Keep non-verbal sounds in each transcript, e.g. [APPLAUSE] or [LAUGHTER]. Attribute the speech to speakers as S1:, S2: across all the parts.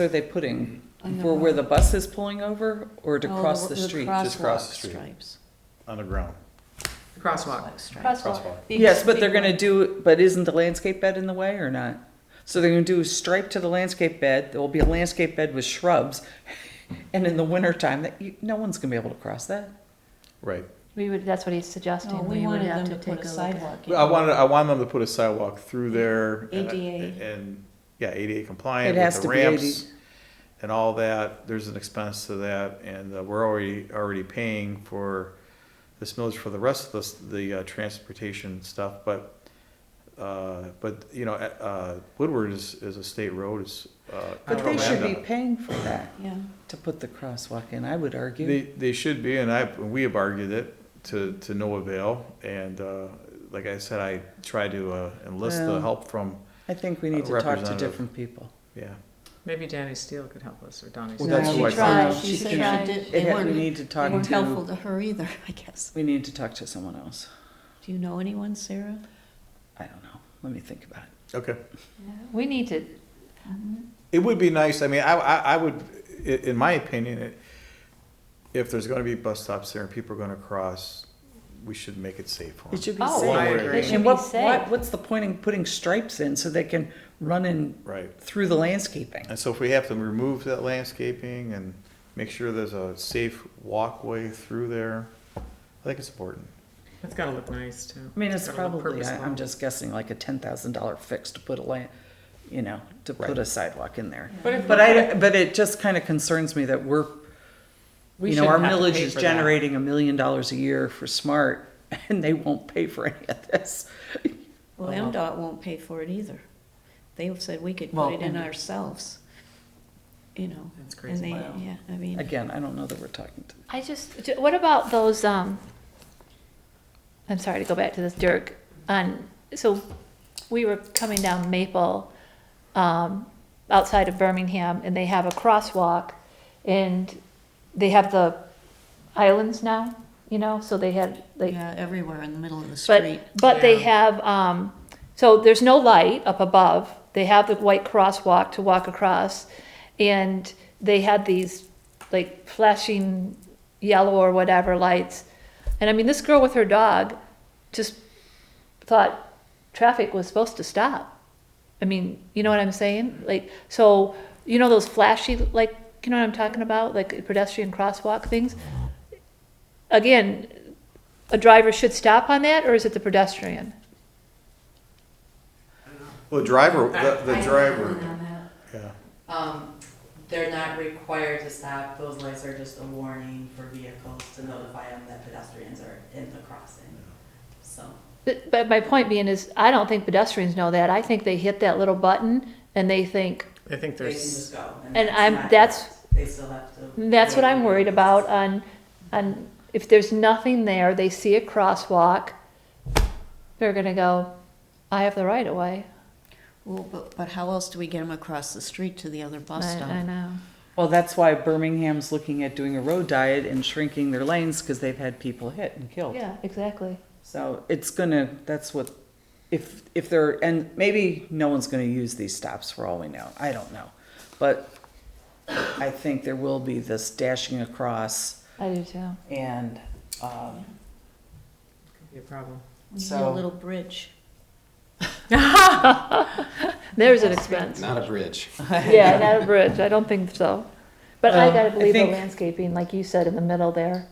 S1: are they putting?
S2: I know.
S1: For where the bus is pulling over or to
S2: Oh,
S1: cross the street?
S2: crosswalk
S3: cross the street.
S2: Stripes.
S3: on the ground.
S4: Crosswalk.
S2: Stripes.
S4: Crosswalk.
S1: Yes, but they're gonna do, but isn't the landscape bed in the way or not? So they're gonna do a stripe to the landscape bed, there will be a landscape bed with shrubs. [LAUGHS] And in the wintertime, that, you, no one's gonna be able to cross that.
S3: Right.
S5: We would, that's what he's suggesting.
S2: No, Oh, we
S5: would
S2: wanted
S5: have
S2: them to
S5: take a look
S2: put a
S5: at-
S2: sidewalk. in.
S3: I wanted, I wanted them to put a sidewalk through there. and-
S2: ADA.
S3: And, yeah, ADA
S1: It
S3: compliant
S1: has
S3: with
S1: to
S3: the
S1: be eighty.
S3: ramps and all that. There's an expense to that and uh, we're already, already paying for this millage for the rest of the, s- the uh, transportation stuff, but, uh, but, you know, uh, Woodward is, is a state road, it's, uh.
S1: But they
S3: controlled
S1: should be
S3: land.
S1: paying for that,
S2: Yeah,
S1: to put the crosswalk in, I would
S3: They,
S1: argue.
S3: they should be, and I, we have argued it to, to no avail, and, uh, like I said, I tried to, uh, enlist the
S1: Well.
S3: help from,
S1: I think we need to talk to
S3: Representative.
S1: different people.
S3: yeah.
S4: Maybe Danny Steele could help us, or Donnie Steele.
S3: Well, that's
S2: she
S3: what I
S2: tried,
S5: thought.
S2: she
S5: She
S2: said
S5: tried.
S2: she did,
S1: It
S2: they
S1: had- we
S2: weren't,
S1: need to
S2: they
S1: talk
S2: weren't helpful
S1: to,
S2: to her either, [LAUGHS] I guess.
S1: we need to talk to someone else.
S2: Do you know anyone, Sarah?
S1: I don't know, let me think about it.
S3: Okay.
S5: Yeah, We need to,
S3: It would be nice, I mean, I, I, I would, i- in my opinion, it- if there's gonna be bus stops there and people are gonna cross, we should make it safe for
S1: It
S3: them.
S1: should be
S5: Oh,
S1: safe.
S4: I agree. It
S5: should
S1: And
S5: be
S1: what,
S5: safe.
S1: what, what's the point in putting stripes in so they can run in
S3: Right,
S1: through the landscaping?
S3: and so if we have to remove that landscaping and make sure there's a safe walkway through there, I think it's important.
S4: It's gotta look nice, too.
S1: I mean, it's
S4: gotta look
S1: probably, I- I'm
S4: purposeful.
S1: just guessing like a ten thousand dollar fix to put a land, you know, to put
S3: Right.
S1: a sidewalk in there.
S4: But if.
S1: But I, but it just kind of concerns me that we're,
S4: we
S1: you know, our
S4: shouldn't have to
S1: millage
S4: pay
S1: is
S4: for that.
S1: generating a million dollars a year for smart [LAUGHS] and they won't pay for any of this. Oh,
S2: Well,
S4: Well,
S2: MDOT won't pay for it either. They said we could
S1: Well,
S2: put it in
S1: and-
S2: ourselves, you know,
S4: That's
S2: and they,
S4: crazy.
S2: yeah, I mean,
S1: Again, I don't know that we're talking to,
S5: I just, j- what about those, um, I'm sorry to go back to this Dirk, on, so we were coming down Maple, um, outside of Birmingham, and they have a crosswalk, and they have the islands now, you know, so they had, like,
S2: yeah, everywhere in the middle of the
S5: But,
S2: street.
S5: but they
S4: Yeah.
S5: have, um, so there's no light up above. They have the white crosswalk to walk across. And they had these like flashing yellow or whatever lights. And I mean, this girl with her dog just thought traffic was supposed to stop. I mean, you know what I'm saying? Like, so, you know, those flashy, like, you know what I'm talking about? Like pedestrian crosswalk things? Again, a driver should stop on that, or is it the pedestrian?
S3: Well, the driver, the,
S6: I-
S3: the
S6: I
S3: driver,
S6: don't know
S3: yeah.
S6: that. Um, they're not required to stop, those lights are just a warning for vehicles to notify them that pedestrians are in the crossing, so.
S5: But, but my point being is, I don't think pedestrians know that. I think they hit that little button and they think,
S4: I think
S6: They can
S4: there's,
S6: just go.
S5: And
S6: that's
S5: I'm-
S6: not-
S5: that's-
S6: They still have to.
S5: that's what I'm worried about on, on, if there's nothing there, they see a crosswalk, they're gonna go, I have the right of way.
S2: Well, but, but how else do we get them across the street to the other bus
S5: I, I
S2: stop?
S5: know.
S1: well, that's why Birmingham's looking at doing a road diet and shrinking their lanes because they've had people hit and killed.
S5: Yeah, exactly.
S1: So it's gonna, that's what, if, if they're, and maybe no one's gonna use these stops for all we know, I don't know. But I think there will be this dashing across
S5: I do too.
S1: and, um,
S4: could be a problem.
S2: We need a
S1: So-
S2: little bridge.
S5: There's an expense.
S7: Not a bridge.
S1: [LAUGHS]
S5: Yeah, not a bridge. I don't think so. But I
S1: Well, I
S5: gotta believe the
S1: think-
S5: landscaping, like you said, in the middle there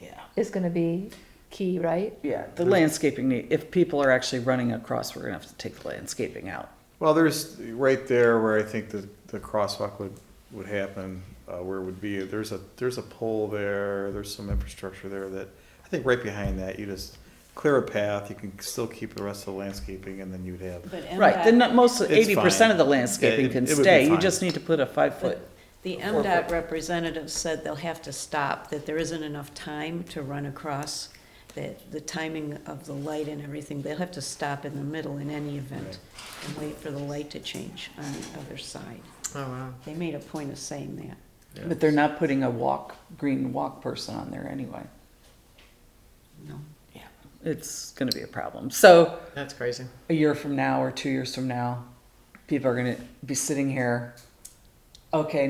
S1: yeah,
S5: is gonna be key, right?
S1: yeah, the landscaping need, if people are actually running across, we're gonna have to take the landscaping out.
S3: Well, there's, right there where I think the, the crosswalk would, would happen, uh, where it would be, there's a, there's a pole there, there's some infrastructure there that, I think right behind that, you just clear a path, you can still keep the rest of the landscaping, and then you'd have,
S2: But
S1: Right, then
S2: MDOT,
S1: not- most,
S3: It's
S1: eighty percent of the
S3: fine. Yeah,
S1: landscaping
S3: it-
S1: can
S3: it would be
S1: stay, you
S3: fine.
S1: just need to put a five foot.
S2: the
S3: four
S2: MDOT representative said they'll have to stop, that there isn't enough time to run across, that the timing of the light and everything, they'll have to stop in the middle in any event and wait for the light to change on the other side.
S4: Oh, wow.
S2: They made a point of saying that.
S1: But they're not putting a walk, green walk person on there anyway,
S2: No,
S1: it's gonna be a problem, so.
S4: That's crazy.
S1: a year from now or two years from now, people are going to be sitting here Okay,